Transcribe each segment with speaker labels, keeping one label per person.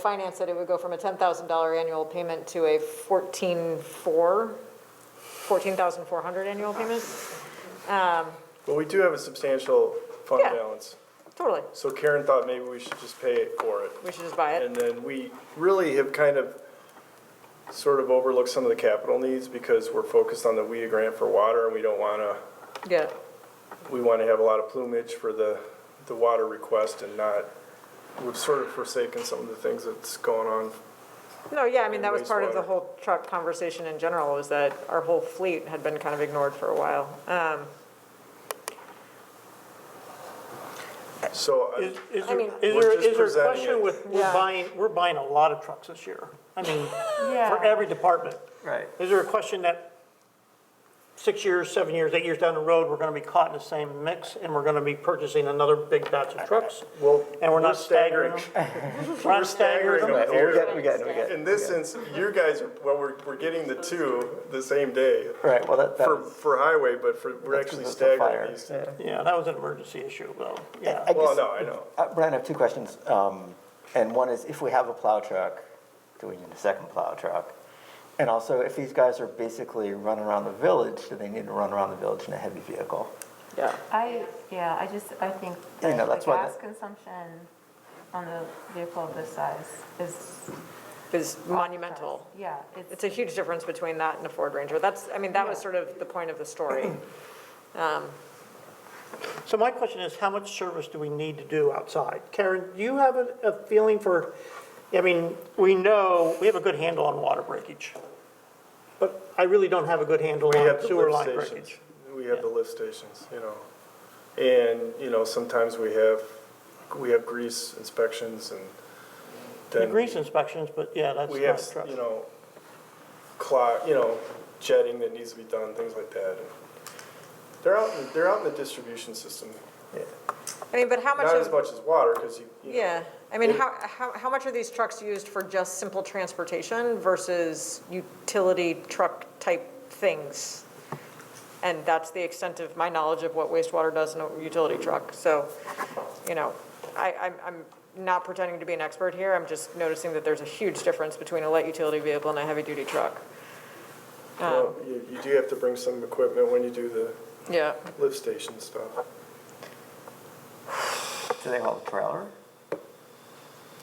Speaker 1: finance it, it would go from a $10,000 annual payment to a 14,400, 14,400 annual payment?
Speaker 2: Well, we do have a substantial fund
Speaker 1: Yeah.
Speaker 2: balance,
Speaker 1: Totally,
Speaker 2: so Karen thought maybe we should just pay it for it.
Speaker 1: we should just buy it.
Speaker 2: And then we really have kind of sort of overlooked some of the capital needs because we're focused on the WIA grant for water and we don't want to,
Speaker 1: Get it.
Speaker 2: we want to have a lot of plumage for the, the water request and not, we've sort of forsaken some of the things that's going on.
Speaker 1: No, yeah, I mean, that was part of the
Speaker 2: Wastewater.
Speaker 1: whole truck conversation in general, was that our whole fleet had been kind of ignored for a while. Um,
Speaker 2: So uh,
Speaker 3: Is,
Speaker 2: I-
Speaker 3: is
Speaker 1: I
Speaker 3: there,
Speaker 1: mean-
Speaker 3: is
Speaker 2: We're
Speaker 3: there,
Speaker 2: just
Speaker 3: is there a
Speaker 2: presenting it.
Speaker 3: question with,
Speaker 1: Yeah.
Speaker 3: we're buying, we're buying a lot of trucks this year. I mean, for
Speaker 1: Yeah.
Speaker 3: every department.
Speaker 4: Right.
Speaker 3: Is there a question that six years, seven years, eight years down the road, we're gonna be caught in the same mix and we're gonna be purchasing anher big batch of trucks?
Speaker 2: well.
Speaker 3: And we're not staggering them? We're not staggering
Speaker 2: staggering
Speaker 3: them?
Speaker 2: them.
Speaker 4: Right, well, we get, we get, we
Speaker 2: In
Speaker 4: get.
Speaker 2: this sense, you guys, are well, we're, we're getting the two the same day.
Speaker 4: Right, well, that, that
Speaker 2: For,
Speaker 4: was-
Speaker 2: for highway, but for, we're
Speaker 4: that's
Speaker 2: actually
Speaker 4: because of the
Speaker 2: staggering
Speaker 4: fire,
Speaker 2: these.
Speaker 4: yeah.
Speaker 3: Yeah, that was an emergency issue though, yeah.
Speaker 4: I
Speaker 2: Well,
Speaker 4: guess-
Speaker 2: no, I know.
Speaker 4: Uh, Brian, I have two questions. Um, and one is if we have a plow truck, do we need a second plow truck? And also, if these guys are basically running around the village, do they need to run around the village in a heavy vehicle?
Speaker 1: Yeah,
Speaker 5: I, yeah, I just, I think
Speaker 4: Yeah,
Speaker 5: that
Speaker 4: no,
Speaker 5: the
Speaker 4: that's why
Speaker 5: gas
Speaker 4: that-
Speaker 5: consumption on the vehicle of this size is.
Speaker 1: is monumental.
Speaker 5: Yeah,
Speaker 1: It's
Speaker 5: it's,
Speaker 1: a huge difference between that and a Ford Ranger. That's, I mean, that was sort of the point of the story.
Speaker 3: So my question is, how much service do we need to do outside? Karen, do you have a, a feeling for, I mean, we know, we have a good handle on water breakage, but I really don't have a good handle
Speaker 2: We
Speaker 3: on
Speaker 2: have the
Speaker 3: sewer
Speaker 2: lift
Speaker 3: line
Speaker 2: stations.
Speaker 3: breakage.
Speaker 2: We have the lift stations, you know. And, you know, sometimes we have, we have grease inspections and
Speaker 3: The
Speaker 2: then
Speaker 3: grease inspections, but yeah, that's
Speaker 2: we have,
Speaker 3: not trucks.
Speaker 2: you know, clock, you know, jetting that needs to be done, things like that. They're out, they're out in the distribution system,
Speaker 1: I mean, but how much
Speaker 2: not as
Speaker 1: of,
Speaker 2: much as water, because you, you know.
Speaker 1: yeah, I mean, how, how, how much are these trucks used for just simple transportation versus utility truck-type things? And that's the extent of my knowledge of what wastewater does in a utility truck. So, you know, I, I'm, I'm not pretending to be an expert here, I'm just noticing that there's a huge difference between a light utility vehicle and a heavy-duty truck.
Speaker 2: Well, You you do have to bring some equipment when you do the
Speaker 1: Yeah.
Speaker 2: lift station stuff.
Speaker 4: Do they haul a trailer?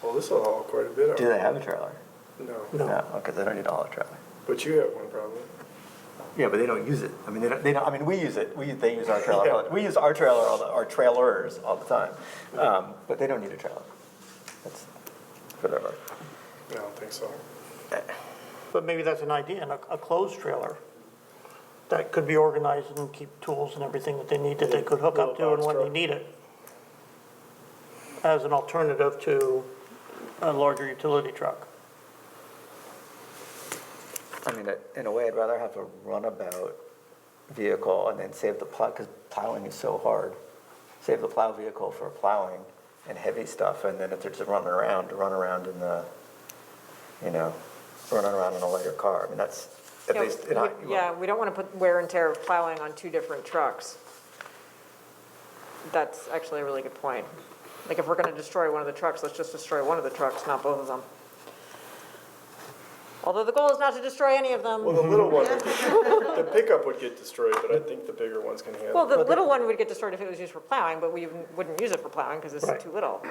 Speaker 2: Well, this will haul quite a bit
Speaker 4: Do
Speaker 2: out.
Speaker 4: they have a trailer?
Speaker 2: No,
Speaker 3: No.
Speaker 4: No, because they don't need to haul a trailer.
Speaker 2: but you have one problem.
Speaker 4: Yeah, but they don't use it. I mean, they don't, they don't, I mean, we use it. We, they use our trailer. all the- We use our trailer, all the, our trailers all the time. Um, but they don't need a trailer. That's, whatever.
Speaker 2: I don't think so.
Speaker 3: But maybe that's an idea, and a, a closed trailer that could be organized and keep tools and everything that they need that they could hook up to and when they need it. As an alternative to a larger utility truck.
Speaker 4: I mean, it- in a way, I'd rather have a runabout vehicle and then save the plow, because plowing is so hard. Save the plow vehicle for plowing and heavy stuff, and then if they're just running around, to run around in the, you know, running around in a lighter car. I mean, that's at
Speaker 1: Yeah,
Speaker 4: least,
Speaker 1: we-
Speaker 4: in our-
Speaker 1: we- Yeah, we don't want to put wear and tear of plowing on two different trucks. That's actually a really good point. Like, if we're going to destroy one of the trucks, let's just destroy one of the trucks, not both of them. Although the goal is not to destroy any of
Speaker 2: Well,
Speaker 1: them.
Speaker 2: the little one, the pickup would get destroyed, but I think the bigger ones can handle.
Speaker 1: Well,
Speaker 2: it.
Speaker 1: the little one would get destroyed if it was used for plowing, but we wouldn't use it for plowing because it's
Speaker 3: Right.
Speaker 1: too little.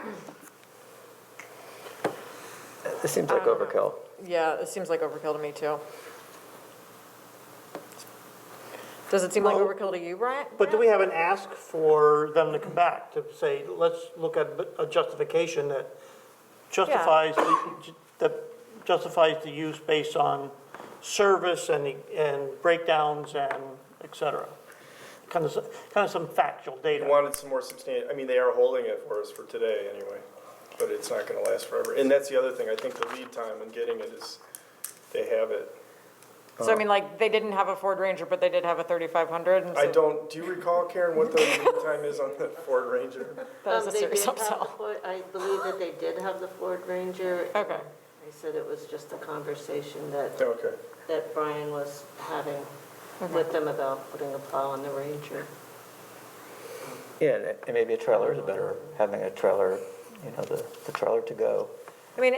Speaker 4: this seems like
Speaker 1: Um,
Speaker 4: overkill.
Speaker 1: Yeah, it seems like overkill to me, too. Does it seem like
Speaker 3: Well,
Speaker 1: overkill to you, Brian?
Speaker 3: But do we have an ask for them to come back, to say, let's look at a justification that justifies, the- that justifies the use based on service and, the- and breakdowns and et cetera? Kind of, s- kind of some factual
Speaker 2: They
Speaker 3: data.
Speaker 2: Wanted some more substantial, I mean, they are holding it for us for today anyway, but it's not gonna last forever. And that's the other thing, I think the lead time in getting it is, they have it.
Speaker 1: So I
Speaker 2: Oh.
Speaker 1: mean, like, they didn't have a Ford Ranger, but they did have a 3500, and so.
Speaker 2: I don't, do you recall, Karen, what the lead time is on the Ford Ranger?
Speaker 1: That was a
Speaker 6: Um, they
Speaker 1: serious
Speaker 6: did have the
Speaker 1: upsell.
Speaker 6: Ford- I believe that they did have the Ford Ranger.
Speaker 1: Okay.
Speaker 6: I said it was just a conversation that,
Speaker 2: Okay,
Speaker 6: that Brian was having with them about putting a plow on the Ranger.
Speaker 4: Yeah, and- and maybe a trailer is better, having a trailer, you know, the, the trailer to go.
Speaker 1: I mean,